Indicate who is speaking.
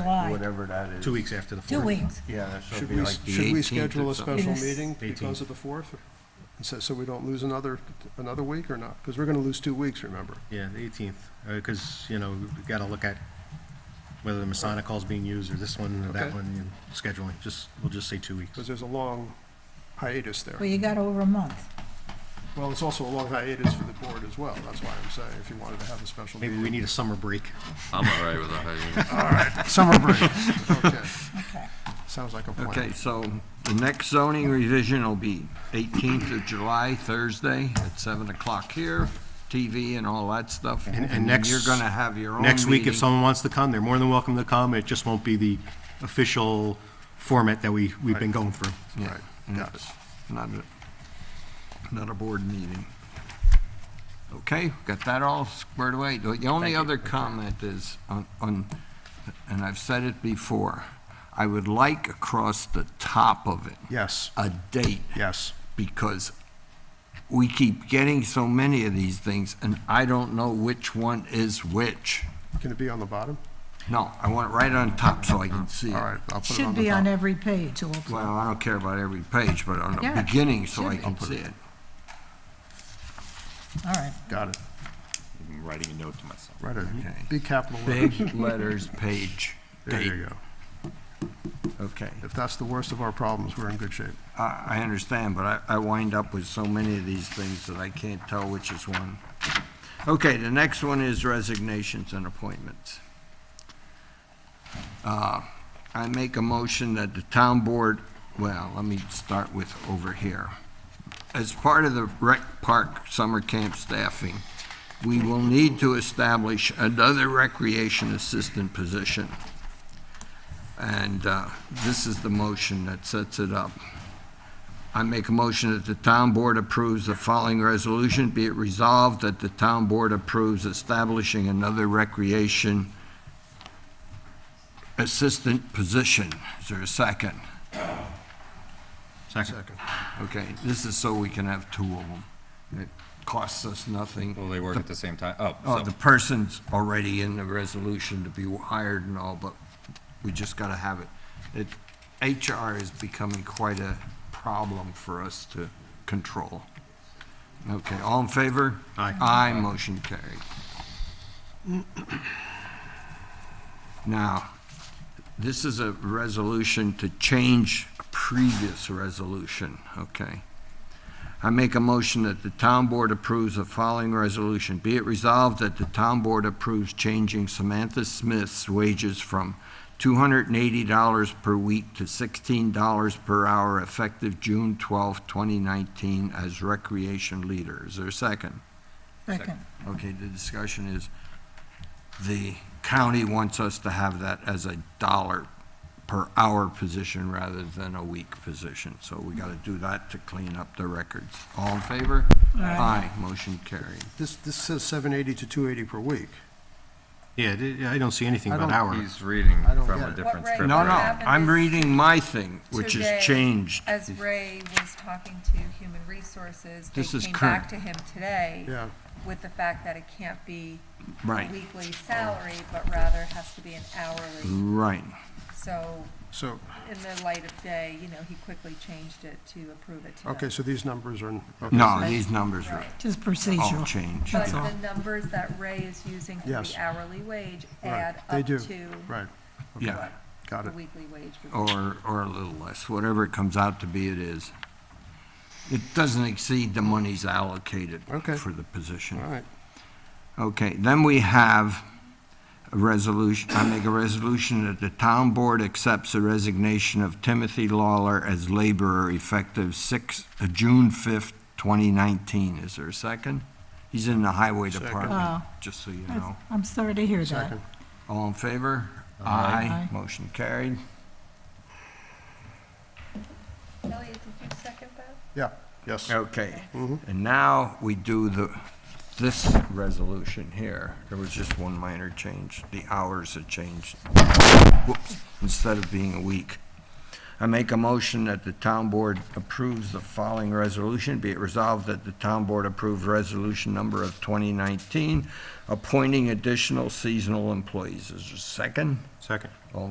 Speaker 1: July,
Speaker 2: whatever that is.
Speaker 3: Two weeks after the 4th.
Speaker 1: two weeks.
Speaker 2: Yeah, so it'd
Speaker 4: Should
Speaker 2: be
Speaker 4: we,
Speaker 2: like the
Speaker 4: should we
Speaker 2: 18th
Speaker 4: schedule
Speaker 2: or
Speaker 4: a
Speaker 2: something.
Speaker 4: special
Speaker 1: Yes.
Speaker 4: meeting because
Speaker 3: 18th.
Speaker 4: of the 4th? And So, so we don't lose another, another week or not? Because we're going to lose two weeks, remember?
Speaker 3: Yeah, the 18th, because, you know, we've got to look at whether the Masonic Hall's being used, or this one, or that
Speaker 4: Okay.
Speaker 3: one, and scheduling, just, we'll just say two weeks.
Speaker 4: Because there's a long hiatus there.
Speaker 1: Well, you got over a month.
Speaker 4: Well, it's also a long hiatus for the board as well. That's why I'm saying if you wanted to have a special
Speaker 3: Maybe
Speaker 4: meeting.
Speaker 3: we need a summer break.
Speaker 5: I'm all right with a hiatus.
Speaker 4: Summer break. Okay,
Speaker 1: Okay.
Speaker 4: sounds like a plan.
Speaker 2: Okay, so the next zoning revision will be 18th of July, Thursday, at 7 o'clock here, TV and all that stuff.
Speaker 3: And- and next-
Speaker 2: You're going to have your own
Speaker 3: Next week, if
Speaker 2: meeting.
Speaker 3: someone wants to come, they're more than welcome to come, it just won't be the official format that we, we've been going through.
Speaker 2: Yeah,
Speaker 4: Right,
Speaker 2: and
Speaker 4: got
Speaker 2: it's Not a, not a board meeting. Okay, got that all squared away. The the only other comment is on, on, and I've said it before, I would like across the top of it,
Speaker 3: Yes,
Speaker 2: a date,
Speaker 3: yes.
Speaker 2: because we keep getting so many of these things, and I don't know which one is which.
Speaker 4: Can it be on the bottom?
Speaker 2: No, I want it right on top so I can see it.
Speaker 4: All right, I'll put it
Speaker 1: Should
Speaker 4: on the
Speaker 1: be on
Speaker 4: top.
Speaker 1: every page, it'll-
Speaker 2: Well, I don't care about every page, but on
Speaker 1: Yeah,
Speaker 2: the beginning so I
Speaker 1: should be.
Speaker 2: can see it.
Speaker 1: all right.
Speaker 4: Got it.
Speaker 5: I'm writing a note to myself.
Speaker 4: Right, a
Speaker 2: Okay.
Speaker 4: big capital letter.
Speaker 2: Big letters, page,
Speaker 4: There
Speaker 2: date.
Speaker 4: you go.
Speaker 2: Okay.
Speaker 4: If that's the worst of our problems, we're in good shape.
Speaker 2: I, I understand, but I, I wind up with so many of these things that I can't tell which is one. Okay, the next one is resignations and appointments. Uh, I make a motion that the town board, well, let me start with over here. As part of the rec park summer camp staffing, we will need to establish another recreation assistant position. And uh, this is the motion that sets it up. I make a motion that the town board approves the following resolution. Be it resolved that the town board approves establishing another recreation assistant position. Is there a second?
Speaker 3: Second.
Speaker 2: Okay, this is so we can have two of them. It costs us nothing.
Speaker 5: Will they work at the same time? Oh,
Speaker 2: Oh,
Speaker 5: so-
Speaker 2: the person's already in the resolution to be hired and all, but we just gotta have it. It, HR is becoming quite a problem for us to control. Okay, all in favor?
Speaker 3: Aye.
Speaker 2: Aye, motion carried. Now, this is a resolution to change a previous resolution, okay? I make a motion that the town board approves the following resolution. Be it resolved that the town board approves changing Samantha Smith's wages from $280 per week to $16 per hour effective June 12, 2019 as recreation leader. Is there a second?
Speaker 1: Second,
Speaker 2: Okay, the discussion is, the county wants us to have that as a dollar per hour position rather than a week position, so we gotta do that to clean up the records. All in favor?
Speaker 1: Aye.
Speaker 2: Aye, motion carried.
Speaker 4: This, this says 780 to 280 per week.
Speaker 3: Yeah, I- I don't see anything
Speaker 4: I
Speaker 3: about
Speaker 4: don't-
Speaker 3: hour.
Speaker 5: He's reading
Speaker 4: I don't
Speaker 5: from
Speaker 4: get
Speaker 5: a
Speaker 4: it.
Speaker 5: different
Speaker 6: What
Speaker 5: script.
Speaker 6: rate?
Speaker 2: No, no,
Speaker 5: right now.
Speaker 2: I'm reading my thing, which
Speaker 6: Today,
Speaker 2: is changed.
Speaker 6: As Ray was talking to Human Resources, they
Speaker 2: This is
Speaker 6: came
Speaker 2: current.
Speaker 6: back to him today
Speaker 4: Yeah.
Speaker 6: with the fact that it can't be
Speaker 2: Right.
Speaker 6: weekly salary, but rather has to be an hourly.
Speaker 2: Right,
Speaker 6: So
Speaker 4: So,
Speaker 6: in the light of day, you know, he quickly changed it to approve it today.
Speaker 4: okay, so these numbers are. okay,
Speaker 2: no, these numbers are
Speaker 1: just
Speaker 2: all
Speaker 1: procedural.
Speaker 2: changed.
Speaker 6: But
Speaker 1: That's all.
Speaker 6: the numbers that Ray is using for
Speaker 4: Yes.
Speaker 6: the hourly wage
Speaker 4: right,
Speaker 6: add
Speaker 4: They
Speaker 6: up
Speaker 4: do,
Speaker 6: to
Speaker 4: right,
Speaker 2: Yeah,
Speaker 4: got
Speaker 6: the
Speaker 4: it.
Speaker 6: weekly wage. would be.
Speaker 2: or, or a little less, whatever it comes out to be, it is. It doesn't exceed the monies allocated
Speaker 4: Okay.
Speaker 2: for the position.
Speaker 4: All right,
Speaker 2: Okay, then we have a resolution, I make a resolution that the town board accepts the resignation of Timothy Lawler as laborer effective six, uh, June fifth, twenty nineteen. Is there a second? He's in the highway
Speaker 4: Second.
Speaker 2: department,
Speaker 1: Wow.
Speaker 2: just so you know.
Speaker 1: That's- I'm Oh, sorry to hear that.
Speaker 4: second.
Speaker 2: All in favor?
Speaker 1: Aye.
Speaker 2: Motion carried.
Speaker 6: Elliot, did you second that?
Speaker 4: Yeah, yes.
Speaker 2: Okay, and now we do the, this resolution here. There was just one minor change. The hours had changed. Whoops, instead of being a week. I make a motion that the town board approves the following resolution. Be it resolved that the town board approves resolution number of 2019, appointing additional seasonal employees. Is there a second?
Speaker 3: Second.
Speaker 2: All in